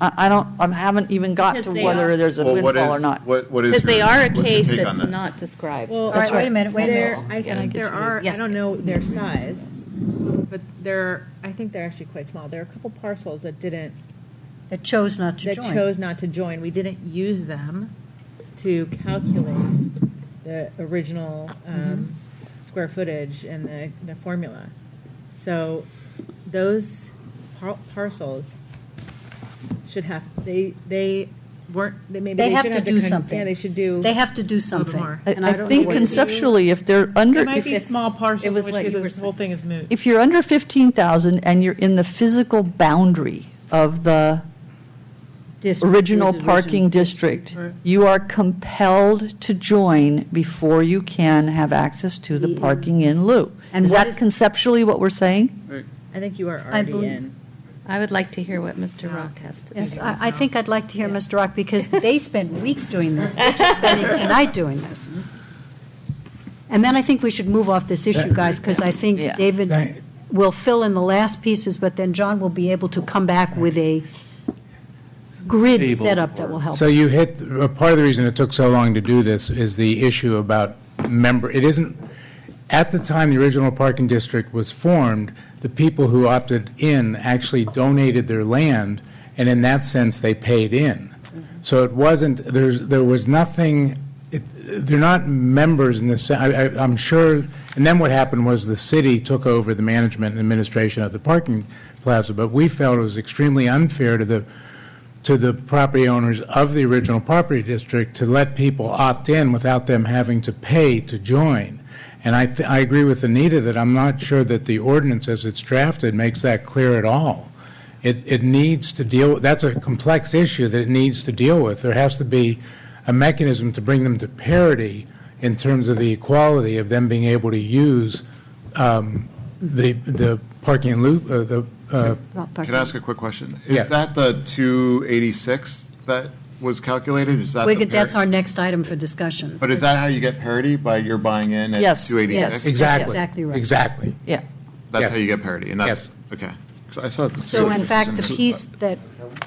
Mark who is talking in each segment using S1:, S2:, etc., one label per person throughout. S1: I, I don't, I haven't even got to
S2: Because they
S1: whether
S2: are-
S1: there's a
S3: Well, what
S1: windfall
S3: is-
S1: or not.
S3: What, what is?
S2: Because they
S3: your-
S2: are a
S3: what's your
S2: case
S3: take on
S2: that's
S3: that?
S2: not described.
S4: Well,
S1: That's
S4: wait
S1: right.
S4: a minute, wait a
S1: There-
S4: minute.
S1: Windmill.
S4: I
S1: Yeah, I
S4: think
S1: get
S4: there
S1: you.
S4: are,
S2: Yes,
S4: I don't
S2: yes.
S4: know their size, but there, are- I think they're actually quite small. There are a couple parcels that didn't,
S5: that chose not to
S4: that
S5: join.
S4: chose not to join. We didn't use them to calculate the original
S5: Mm-hmm.
S4: um, square footage and the, the formula. So those par- parcels should have, they, they weren't, they maybe
S5: They
S4: they
S5: have
S4: should
S5: to
S4: have to.
S5: do
S4: con-
S5: something.
S4: Yeah, they should do.
S5: They have to do
S4: a little
S5: something.
S4: more.
S1: I-
S4: And I don't
S1: I
S4: know
S1: think
S4: what it is.
S1: conceptually, if they're under,
S4: It might
S1: if
S4: be
S1: it's-
S4: small
S2: It
S4: parcels,
S2: was
S4: which
S2: what
S4: gives
S2: you were
S4: us, the whole thing is moot.
S1: if you're under 15,000 and you're in the physical boundary of the
S5: District.
S1: original parking district, you are compelled to join before you can have access to the parking in lieu.
S5: And
S1: Is
S5: what
S1: that
S5: is-
S1: conceptually what we're saying?
S4: I think you are
S5: I
S4: already
S5: believe-
S4: in.
S2: I would like to hear what Mr. Rock has to
S5: Yes,
S2: say.
S5: I, I think I'd like to hear Mr. Rock, because they spent weeks doing this, we're just spending tonight doing this. And then I think we should move off this issue, guys, because I think
S1: Yeah.
S5: David
S6: Thank-
S5: will fill in the last pieces, but then John will be able to come back with a grid
S7: Table
S5: setup that will help.
S6: So you hit, uh, part of the reason it took so long to do this is the issue about member, it isn't, at the time the original parking district was formed, the people who opted in actually donated their land, and in that sense, they paid in. So it wasn't, there's, there was nothing, it- they're not members in this, I, I- I'm sure, and then what happened was the city took over the management and administration of the parking plaza, but we felt it was extremely unfair to the to the property owners of the original property district to let people opt in without them having to pay to join. And I, th- I agree with Anita that I'm not sure that the ordinance as it's drafted makes that clear at all. It, it needs to deal, that's a complex issue that it needs to deal with. There has to be a mechanism to bring them to parity in terms of the equality of them being able to use um, the, the parking and loop, uh, the uh,
S5: Well, parking.
S3: Can I ask a quick question?
S6: Yeah.
S3: Is that the two eighty-six that was calculated? Is that?
S5: We
S3: the
S5: could- That's
S3: par-
S5: our next item for discussion.
S3: But is that how you get parity? By you're buying in at
S1: Yes,
S3: two eighty-six?
S1: yes.
S6: Exactly.
S5: Exactly right.
S6: Exactly.
S1: Yeah.
S3: That's
S6: Yes.
S3: how you get parity, and that's, okay. 'Cause I thought.
S5: So uh, in fact, the piece that,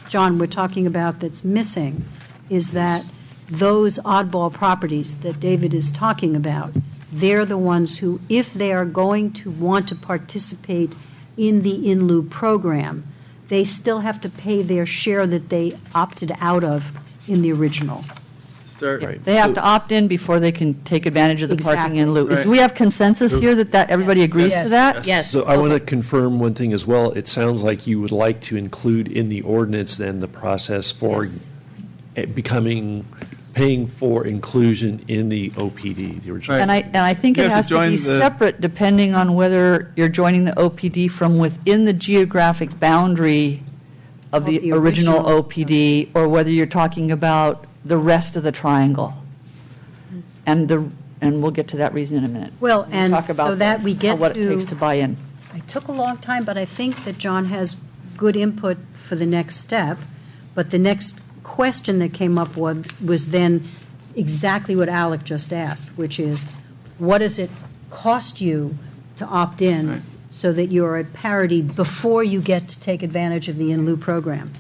S5: John, we're talking about that's missing is that those oddball properties that David is talking about, they're the ones who, if they are going to want to participate in the in lieu program, they still have to pay their share that they opted out of in the original.
S7: Start.
S1: They have to opt in before they can take advantage of the parking in lieu. Is-
S7: Right.
S1: Do we have consensus here that that, everybody agrees to that?
S2: Yes.
S7: So I want to confirm one thing as well. It sounds like you would like to include in the ordinance then the process for
S2: Yes.
S7: it becoming, paying for inclusion in the OPD, the original.
S1: And I, and I think
S8: You
S1: it
S8: have to
S1: has to
S8: join
S1: be
S8: the-
S1: separate depending on whether you're joining the OPD from within the geographic boundary of the
S5: the
S1: original
S5: original.
S1: OPD, or whether you're talking about the rest of the triangle. And the, and we'll get to that reason in a minute.
S5: Well,
S1: We'll
S5: and
S1: talk about
S5: so that we
S1: how-
S5: get
S1: What it
S5: to-
S1: takes to buy in.
S5: It took a long time, but I think that John has good input for the next step. But the next question that came up was, was then exactly what Alec just asked, which is, what does it cost you to opt in so that you're at parity before you get to take advantage of the in lieu program?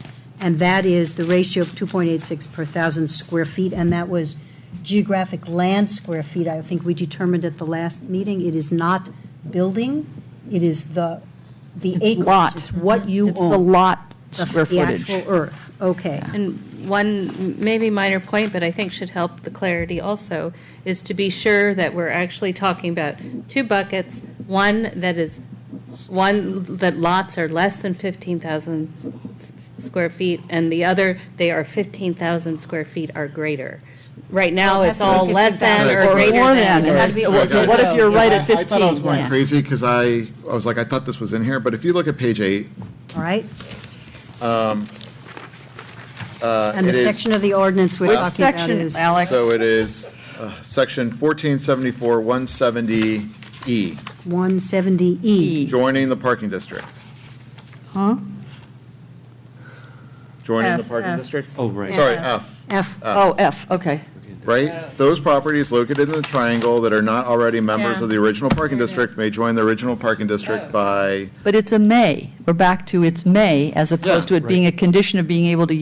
S5: And that is the ratio of 2.86 per thousand square feet, and that was geographic land square feet. I think we determined at the last meeting, it is not building, it is the, the acreage.
S1: lot.
S5: It's what you own.
S1: It's the lot square
S5: the
S1: footage.
S5: actual earth, okay.
S2: And one maybe minor point, but I think should help the clarity also, is to be sure that we're actually talking about two buckets, one that is, one that lots are less than 15,000 s- square feet, and the other, they are 15,000 square feet or greater. Right now, it's all less than or greater
S1: Or
S2: than.
S1: than.
S2: or-
S1: Had to be- So what if you're right at
S3: I thought I was
S1: 15?
S3: going
S1: Yeah.
S3: crazy, because I, I was like, I thought this was in here, but if you look at page eight,
S5: All right?
S3: uh,
S5: And the
S3: it is-
S5: section of the ordinance we're talking about
S1: Section,
S5: is.
S1: Alex.
S3: So it is, uh, section fourteen seventy-four, one seventy E,
S5: 170E.
S3: joining the parking district.
S1: Huh?
S3: Joining the
S4: F,
S3: parking
S4: F.
S3: district?
S7: Oh, right.
S3: Sorry, F.
S5: F,
S1: Oh, F, okay.
S3: right? Those properties located in the triangle that are not already members
S4: Yeah.
S3: of the original parking district may join the original parking district by
S1: But it's a may. We're back to it's may, as opposed to it being a condition of being able to